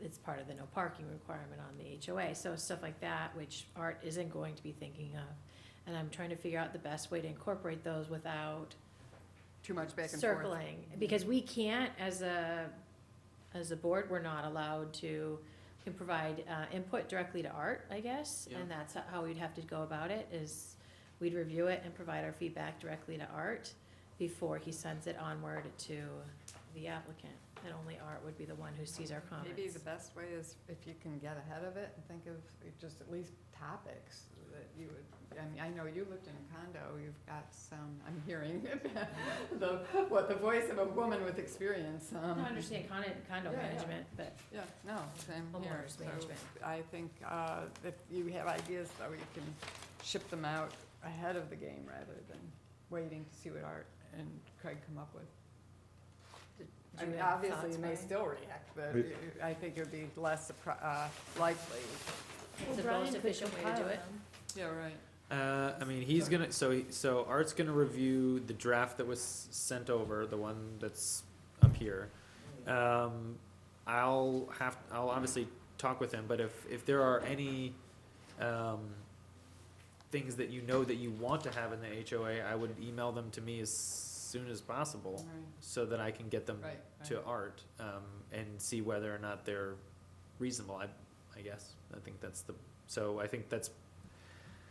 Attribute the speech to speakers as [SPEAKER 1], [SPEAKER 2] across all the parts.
[SPEAKER 1] it's part of the no parking requirement on the HOA. So stuff like that, which Art isn't going to be thinking of. And I'm trying to figure out the best way to incorporate those without
[SPEAKER 2] Too much back and forth. Mm-hmm.
[SPEAKER 1] circling. Because we can't, as a, as a board, we're not allowed to, we can provide uh, input directly to Art, I guess.
[SPEAKER 3] Yeah.
[SPEAKER 1] And that's how we'd have to go about it, is we'd review it and provide our feedback directly to Art before he sends it onward to the applicant. And only Art would be the one who sees our comments.
[SPEAKER 2] Maybe the best way is if you can get ahead of it and think of just at least topics that you would, I mean, I know you lived in a condo, you've got some, I'm hearing the, what, the voice of a woman with experience.
[SPEAKER 1] I
[SPEAKER 2] um,
[SPEAKER 1] don't understand condo, condo
[SPEAKER 2] Yeah, yeah.
[SPEAKER 1] management, but
[SPEAKER 2] Yeah, no, same here.
[SPEAKER 1] homeowners
[SPEAKER 2] So
[SPEAKER 1] management.
[SPEAKER 2] I think uh, if you have ideas, though, you can ship them out ahead of the game rather than waiting to see what Art and Craig come up with. I
[SPEAKER 1] Do you
[SPEAKER 2] mean,
[SPEAKER 1] have
[SPEAKER 2] obviously,
[SPEAKER 1] thoughts,
[SPEAKER 2] you may
[SPEAKER 1] Brian?
[SPEAKER 2] still react, but
[SPEAKER 4] But-
[SPEAKER 2] you- I think it would be less appro- uh, likely.
[SPEAKER 1] It's the most efficient way to do it.
[SPEAKER 2] Yeah, right.
[SPEAKER 3] Uh, I mean, he's gonna, so, he- so Art's gonna review the draft that was s- sent over, the one that's up here. Um, I'll have, I'll obviously talk with him, but if, if there are any, um, things that you know that you want to have in the HOA, I would email them to me as soon as possible, so that I can get them
[SPEAKER 2] Right, right.
[SPEAKER 3] to Art, um, and see whether or not they're reasonable, I, I guess. I think that's the, so I think that's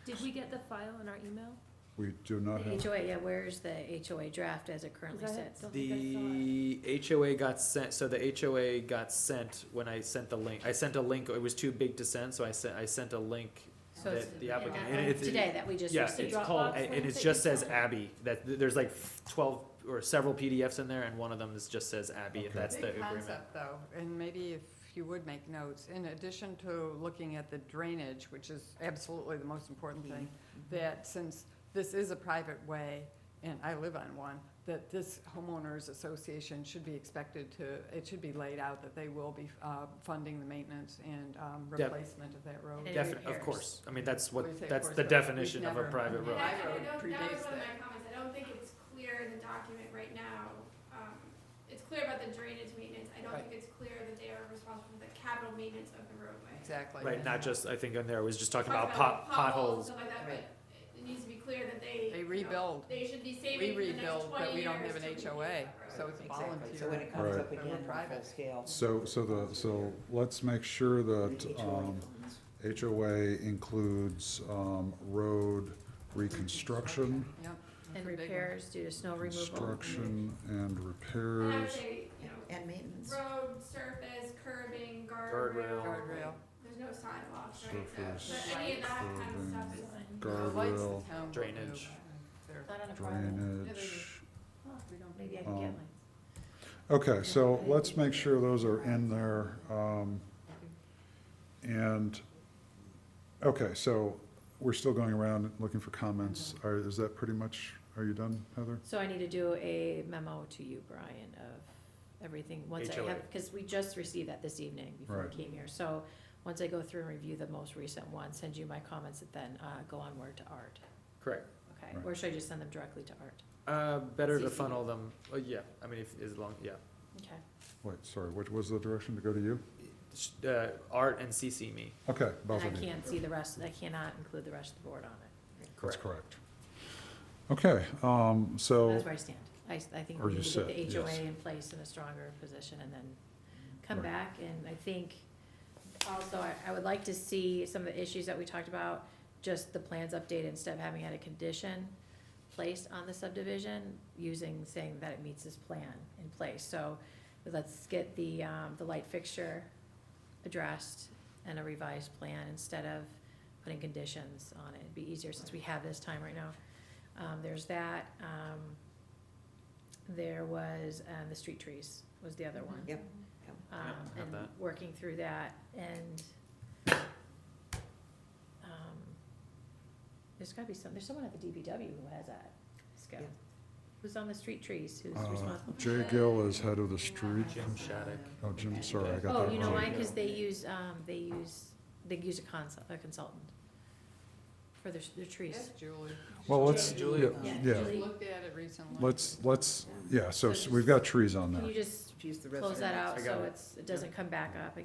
[SPEAKER 5] Did we get the file in our email?
[SPEAKER 4] We do
[SPEAKER 3] Uh-huh.
[SPEAKER 4] not
[SPEAKER 1] The
[SPEAKER 4] have,
[SPEAKER 1] HOA, yeah, where's the HOA draft as it currently
[SPEAKER 5] Is that it?
[SPEAKER 1] sits?
[SPEAKER 5] Don't think I saw
[SPEAKER 3] The HOA got sent, so the HOA got sent when I sent the link, I sent a link, it was too big to send, so I sent, I sent a link.
[SPEAKER 1] So
[SPEAKER 3] that
[SPEAKER 1] it's
[SPEAKER 3] the
[SPEAKER 1] in
[SPEAKER 3] applicant-
[SPEAKER 1] that-
[SPEAKER 3] and it's-
[SPEAKER 1] Today that we just
[SPEAKER 3] Yeah,
[SPEAKER 1] received.
[SPEAKER 3] it's
[SPEAKER 5] Dropbox
[SPEAKER 3] called,
[SPEAKER 5] link
[SPEAKER 3] and it
[SPEAKER 5] that
[SPEAKER 3] just
[SPEAKER 5] you
[SPEAKER 3] says
[SPEAKER 5] sent?
[SPEAKER 3] Abby, that, there's like twelve or several PDFs in there, and one of them is, just says Abby, and
[SPEAKER 4] Okay.
[SPEAKER 3] that's the
[SPEAKER 2] Big
[SPEAKER 3] agreement.
[SPEAKER 2] concept, though, and maybe if you would make notes, in addition to looking at the drainage, which is absolutely the most important thing, that since this is a private way, and I live on one, that this homeowners association should be expected to, it should be laid out that they will be uh, funding the maintenance and um,
[SPEAKER 3] Def-
[SPEAKER 2] replacement of that road.
[SPEAKER 1] And
[SPEAKER 3] Definite, of
[SPEAKER 1] repairs.
[SPEAKER 3] course, I mean, that's
[SPEAKER 2] We say,
[SPEAKER 3] what,
[SPEAKER 2] of
[SPEAKER 3] that's
[SPEAKER 2] course,
[SPEAKER 3] the
[SPEAKER 2] but we've
[SPEAKER 3] definition of a
[SPEAKER 2] never-
[SPEAKER 3] private
[SPEAKER 2] Yeah.
[SPEAKER 3] road.
[SPEAKER 2] Right.
[SPEAKER 6] I don't-
[SPEAKER 2] Road
[SPEAKER 6] That
[SPEAKER 2] predates
[SPEAKER 6] was one of
[SPEAKER 2] that.
[SPEAKER 6] my comments, I don't think it's clear in the document right now, um, it's clear about the drainage maintenance, I don't
[SPEAKER 2] Right.
[SPEAKER 6] think it's clear that they are responsible for the capital maintenance of the roadway.
[SPEAKER 2] Exactly.
[SPEAKER 3] Right, not just, I think on there, it was just talking
[SPEAKER 6] Talk
[SPEAKER 3] about pot,
[SPEAKER 6] like,
[SPEAKER 3] potholes,
[SPEAKER 6] potholes and stuff like that, but
[SPEAKER 2] Right.
[SPEAKER 6] it needs to be clear that they.
[SPEAKER 2] They
[SPEAKER 6] you know,
[SPEAKER 2] rebuild.
[SPEAKER 6] They should be
[SPEAKER 2] We
[SPEAKER 6] saving for the next
[SPEAKER 2] rebuild, but
[SPEAKER 6] twenty
[SPEAKER 2] we
[SPEAKER 6] years
[SPEAKER 2] don't have an
[SPEAKER 6] to rebuild
[SPEAKER 2] HOA,
[SPEAKER 6] that road.
[SPEAKER 2] so it's a
[SPEAKER 7] Exactly, so when
[SPEAKER 2] volunteer.
[SPEAKER 7] it comes up
[SPEAKER 4] Right.
[SPEAKER 7] again, on full
[SPEAKER 2] Private.
[SPEAKER 7] scale.
[SPEAKER 4] so, so the, so let's make sure that,
[SPEAKER 7] The HOA
[SPEAKER 4] um,
[SPEAKER 7] funds.
[SPEAKER 4] HOA includes, um, road reconstruction,
[SPEAKER 2] Yep.
[SPEAKER 1] And
[SPEAKER 2] Pretty big one.
[SPEAKER 1] repairs due to snow removal.
[SPEAKER 4] construction and
[SPEAKER 6] And I would
[SPEAKER 4] repairs.
[SPEAKER 6] say, you know,
[SPEAKER 7] And maintenance.
[SPEAKER 6] road, surface, curbing,
[SPEAKER 3] Guardrail.
[SPEAKER 6] guardrail,
[SPEAKER 2] Guardrail.
[SPEAKER 6] there's no sidewalks, right? So-
[SPEAKER 4] Surface,
[SPEAKER 6] But any of that kind of
[SPEAKER 4] curbing,
[SPEAKER 6] stuff is.
[SPEAKER 2] The lights the
[SPEAKER 4] Guardrail,
[SPEAKER 2] town will do.
[SPEAKER 3] Drainage.
[SPEAKER 2] They're-
[SPEAKER 1] Not on a Friday.
[SPEAKER 4] drainage.
[SPEAKER 2] we don't-
[SPEAKER 1] Maybe I can get
[SPEAKER 4] Um,
[SPEAKER 1] mine.
[SPEAKER 4] Okay, so let's make sure those are in there, um, and, okay, so we're still going around looking for comments. Are, is that pretty much, are you done, Heather?
[SPEAKER 1] So I need to do a memo to you, Brian, of everything, once I
[SPEAKER 3] HOA.
[SPEAKER 1] have, because we just received that this evening before
[SPEAKER 4] Right.
[SPEAKER 1] I came here. So once I go through and review the most recent one, send you my comments, and then uh, go onward to Art.
[SPEAKER 3] correct.
[SPEAKER 1] Okay,
[SPEAKER 4] Right.
[SPEAKER 1] or should I just send them directly to Art?
[SPEAKER 3] Uh, better to
[SPEAKER 1] CC.
[SPEAKER 3] funnel them, oh, yeah, I mean, if, as long, yeah.
[SPEAKER 1] Okay.
[SPEAKER 4] Wait, sorry, what was the direction to go to you?
[SPEAKER 3] Uh, Art and CC me.
[SPEAKER 4] Okay, both
[SPEAKER 1] And I
[SPEAKER 4] of you.
[SPEAKER 1] can't see the rest, I cannot include the rest of the board on it.
[SPEAKER 4] That's correct. Okay, um, so,
[SPEAKER 1] That's where I stand. I, s- I think
[SPEAKER 4] Or
[SPEAKER 1] we need
[SPEAKER 4] just
[SPEAKER 1] to get
[SPEAKER 4] sit,
[SPEAKER 1] the HOA
[SPEAKER 4] yes.
[SPEAKER 1] in place in a stronger position and then come
[SPEAKER 4] Right.
[SPEAKER 1] back. And I think also, I, I would like to see some of the issues that we talked about, just the plans updated instead of having had a condition placed on the subdivision, using, saying that it meets this plan in place. So let's get the, um, the light fixture addressed and a revised plan instead of putting conditions on it. It'd be easier since we have this time right now. Um, there's that, um, there was, uh, the street trees was the other one.
[SPEAKER 7] Yep.
[SPEAKER 1] Um,
[SPEAKER 3] Yep, have
[SPEAKER 1] and
[SPEAKER 3] that.
[SPEAKER 1] working through that and, um, there's gotta be some, there's someone at the DBW who has that skill.
[SPEAKER 7] Yeah.
[SPEAKER 1] Who's on the street trees, who's
[SPEAKER 4] uh,
[SPEAKER 1] responsible?
[SPEAKER 4] Jay Gill is head of the street.
[SPEAKER 3] Jim Shattuck.
[SPEAKER 4] Oh, Jim, sorry, I got that wrong.
[SPEAKER 1] Oh, you know why?
[SPEAKER 3] wrong.
[SPEAKER 1] Cause they use, um, they use, they use a consult, a consultant for their, their trees.
[SPEAKER 2] Yes, Julie.
[SPEAKER 4] Well, let's,
[SPEAKER 3] Julie.
[SPEAKER 4] yeah,
[SPEAKER 7] Yeah.
[SPEAKER 4] yeah,
[SPEAKER 2] Just looked at it recently.
[SPEAKER 4] let's, let's, yeah, so s- we've got trees on there.
[SPEAKER 1] Can you just
[SPEAKER 7] She's the
[SPEAKER 1] close that out
[SPEAKER 3] I got
[SPEAKER 1] so
[SPEAKER 3] it.
[SPEAKER 1] it's, it doesn't come back up